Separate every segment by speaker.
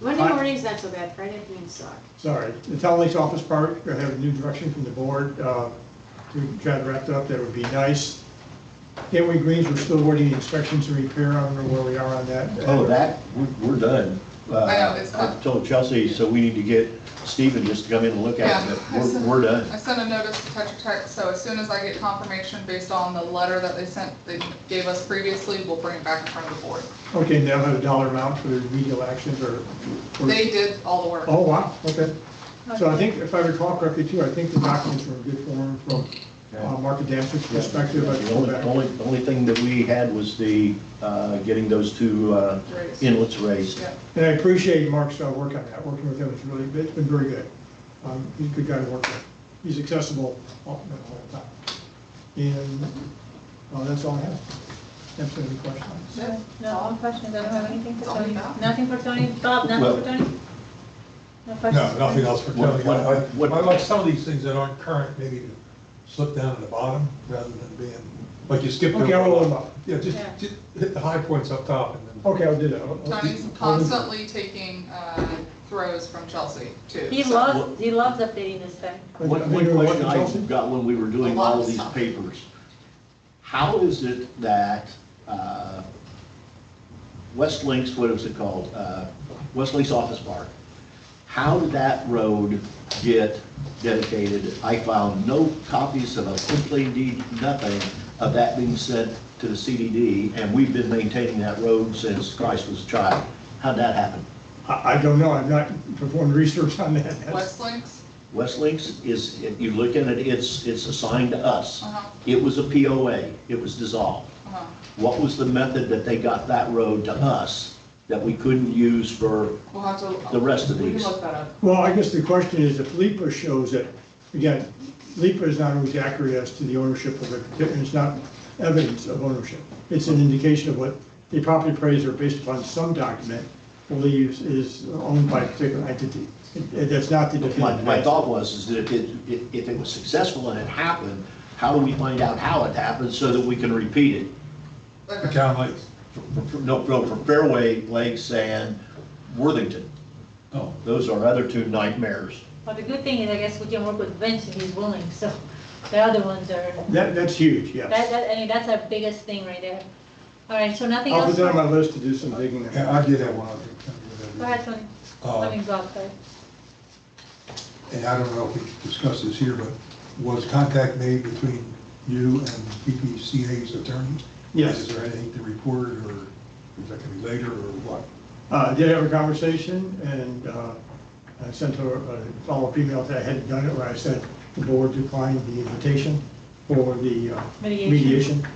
Speaker 1: Monday
Speaker 2: Fine.
Speaker 1: morning's not so bad, Friday afternoons suck.
Speaker 2: Sorry, the Town Lakes Office Park, I have a new direction from the board, uh, to try to wrap it up, that would be nice. Gateway Greens, we're still awarding inspections and repair, I don't know where we are on that.
Speaker 3: Oh, that, we're- we're done.
Speaker 4: I know, it's
Speaker 3: Uh,
Speaker 4: done.
Speaker 3: I told Chelsea, so we need to get Stephen just to come in and look at it,
Speaker 4: Yeah, I
Speaker 3: but we're,
Speaker 4: sent-
Speaker 3: we're done.
Speaker 4: I sent a notice to Tetra Tech, so as soon as I get confirmation based on the letter that they sent, they gave us previously, we'll bring it back in front of the board.
Speaker 2: Okay, and they'll have a dollar amount for the remedial actions or? or-
Speaker 4: They did all the work.
Speaker 2: Oh, wow, okay. So I think, if I recall correctly too, I think the documents were in good form from, uh, Mark Adamski's perspective. I
Speaker 3: The
Speaker 2: can go
Speaker 3: only,
Speaker 2: back.
Speaker 3: only, the only thing that we had was the, uh, getting those two uh,
Speaker 4: Raised.
Speaker 3: inlets raised.
Speaker 4: Yeah.
Speaker 2: And I appreciate Mark's uh, work on that, working with him, it's really, it's been very good. Um, He's a good guy to work with. He's accessible all the whole time. And uh, that's all I have. If there's any questions.
Speaker 4: Yeah.
Speaker 5: No, all questions, I don't have anything for
Speaker 4: It's all
Speaker 5: Tony.
Speaker 4: about-
Speaker 5: Nothing for Tony, Bob,
Speaker 3: Well-
Speaker 5: nothing for Tony? No
Speaker 6: No,
Speaker 5: questions?
Speaker 6: nothing else for
Speaker 3: What-
Speaker 6: Tony.
Speaker 3: what-
Speaker 6: I-
Speaker 3: what-
Speaker 6: I I like some of these things that aren't current, maybe to slip down to the bottom rather than being, like you skipped.
Speaker 2: Okay,
Speaker 6: over-
Speaker 2: I'll roll them up.
Speaker 6: Yeah, just,
Speaker 5: Yeah.
Speaker 6: just hit the high points up top and then.
Speaker 2: Okay, I'll do that. I'll- I'll-
Speaker 4: Tony's constantly taking uh, throws from Chelsea, too.
Speaker 5: He
Speaker 4: so-
Speaker 5: loves, he loves updating this thing.
Speaker 3: One, one question I got when we were doing
Speaker 4: A lot
Speaker 3: all
Speaker 4: of
Speaker 3: these
Speaker 4: stuff.
Speaker 3: papers, how is it that, uh, West Links, what is it called, uh, West Links Office Park, how did that road get dedicated? I found no copies of a complete deed, nothing of that being sent to the CDD, and we've been maintaining that road since Christ was a child. How'd that happen?
Speaker 2: I I don't know, I've not performed research on that. That's-
Speaker 4: West Links,
Speaker 3: West Links is, if you look at it, it's, it's assigned to us.
Speaker 4: Uh-huh.
Speaker 3: It was a POA, it was dissolved.
Speaker 4: uh,
Speaker 3: What was the method that they got that road to us that we couldn't use for,
Speaker 4: we'll have to.
Speaker 3: The rest of
Speaker 4: We can
Speaker 3: these.
Speaker 4: look that up.
Speaker 2: Well, I guess the question is if LIPA shows it, again, LIPA is not always accurate as to the ownership of it, and it's not evidence of ownership. It's an indication of what the property appraiser, based upon some document, believes is owned by a particular entity. It- it- That's not the
Speaker 3: my,
Speaker 2: definitive.
Speaker 3: my thought was is that if it, if- if it was successful and it happened, how do we find out how it happened so that we can repeat it?
Speaker 6: The town lights.
Speaker 3: For- for- No, no, from Fairway, Lakes and Worthington.
Speaker 6: Oh.
Speaker 3: Those are other two nightmares.
Speaker 5: But the good thing is, I guess we can work with Vince if he's willing, so the other ones are,
Speaker 2: That, that's huge,
Speaker 5: that,
Speaker 2: yes.
Speaker 5: that, I mean, that's our biggest thing right there. All right, so nothing
Speaker 2: I'll
Speaker 5: else?
Speaker 2: put that on my list to do some digging.
Speaker 6: Yeah, I did have one. other thing that I did.
Speaker 5: Go ahead, Tony, I mean,
Speaker 6: Uh,
Speaker 5: Bob, sorry.
Speaker 6: And I don't know if we can discuss this here, but was contact made between you and PPCA's attorney?
Speaker 2: Yes.
Speaker 6: Is there anything to report or is that gonna be later or what?
Speaker 2: Uh, did have a conversation and, uh, I sent her a follow-up email that I hadn't done it, where I said the board declined the invitation for the uh,
Speaker 5: Mediation.
Speaker 2: mediation.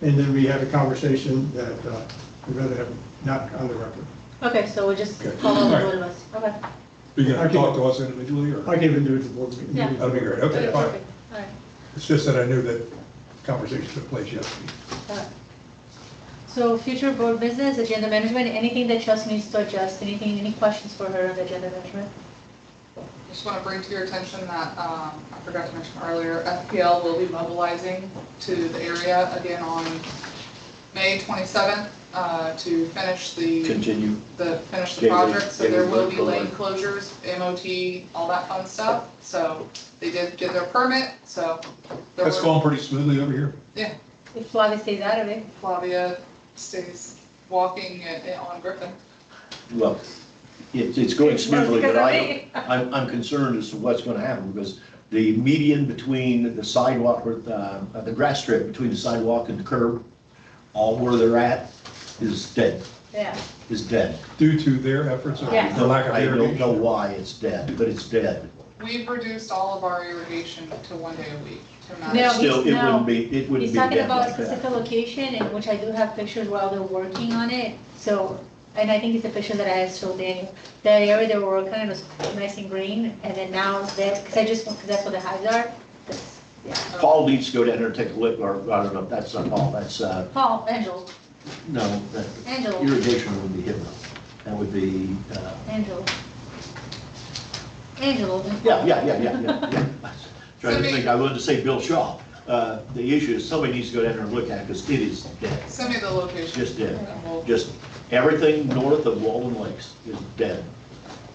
Speaker 2: And then we had a conversation that, uh, we'd rather have not on the record.
Speaker 5: Okay, so we'll just
Speaker 6: Okay.
Speaker 5: follow the
Speaker 6: All right.
Speaker 5: board of us, okay?
Speaker 6: Are you gonna
Speaker 2: Okay.
Speaker 6: talk to us individually or?
Speaker 2: I can even do it to the board. meeting.
Speaker 5: Yeah.
Speaker 6: That'd be great, okay,
Speaker 5: Okay,
Speaker 6: fine.
Speaker 5: perfect. All right.
Speaker 6: It's just that I knew that conversation took place yesterday.
Speaker 5: Uh, So future board business, agenda management, anything that Chelsea needs to adjust, anything, any questions for her on the agenda management?
Speaker 4: Just want to bring to your attention that, um, I forgot to mention earlier, FPL will be mobilizing to the area again on May 27th uh, to finish the,
Speaker 3: Continue.
Speaker 4: the, finish the
Speaker 3: Gateway-
Speaker 4: project. So there
Speaker 3: gateway
Speaker 4: will be
Speaker 3: road.
Speaker 4: lane closures, MOT, all that fun stuff. So they did get their permit, so. there
Speaker 6: That's
Speaker 4: were-
Speaker 6: going pretty smoothly over here.
Speaker 4: Yeah,
Speaker 5: If Flavia stays out of it,
Speaker 4: Flavia stays walking at- at- on Griffin.
Speaker 3: Well, it, it's going smoothly,
Speaker 5: Because
Speaker 3: but
Speaker 5: of
Speaker 3: I,
Speaker 5: me.
Speaker 3: I'm, I'm concerned as to what's gonna happen, because the median between the sidewalk, or, uh, the grass strip between the sidewalk and the curb, all where they're at, is dead,
Speaker 5: yeah.
Speaker 3: is dead.
Speaker 6: Due to their efforts or
Speaker 5: Yeah.
Speaker 6: the lack of
Speaker 3: I don't know
Speaker 6: irrigation.
Speaker 3: why it's dead, but it's dead.
Speaker 4: We've reduced all of our irrigation to one day a week to manage.
Speaker 5: No, he's-
Speaker 3: Still, it
Speaker 5: no.
Speaker 3: wouldn't be, it wouldn't
Speaker 5: He's
Speaker 3: be
Speaker 5: talking
Speaker 3: dead
Speaker 5: about a
Speaker 3: like
Speaker 5: specific
Speaker 3: that.
Speaker 5: location, and which I do have pictures while they're working on it, so, and I think it's a picture that I had showed Daniel. The area they were working on was nice and green, and then now that, because I just, because that's what the hives are, that's, yeah.
Speaker 3: Paul needs to go down there and take a look, or, I don't know, that's not Paul, that's, uh,
Speaker 5: Paul, Angel,
Speaker 3: no, that-
Speaker 5: Angel,
Speaker 3: irrigation would be him. That would be, uh,
Speaker 5: Angel. Angel.
Speaker 3: Yeah, yeah, yeah, yeah, yeah, yeah. Trying to
Speaker 4: Somebody-
Speaker 3: think, I wanted to say Bill Shaw. Uh, The issue is somebody needs to go down there and look at it because it is dead,
Speaker 4: Send me the location.
Speaker 3: just dead.
Speaker 4: And we'll-
Speaker 3: Just everything north of Walden Lakes is dead.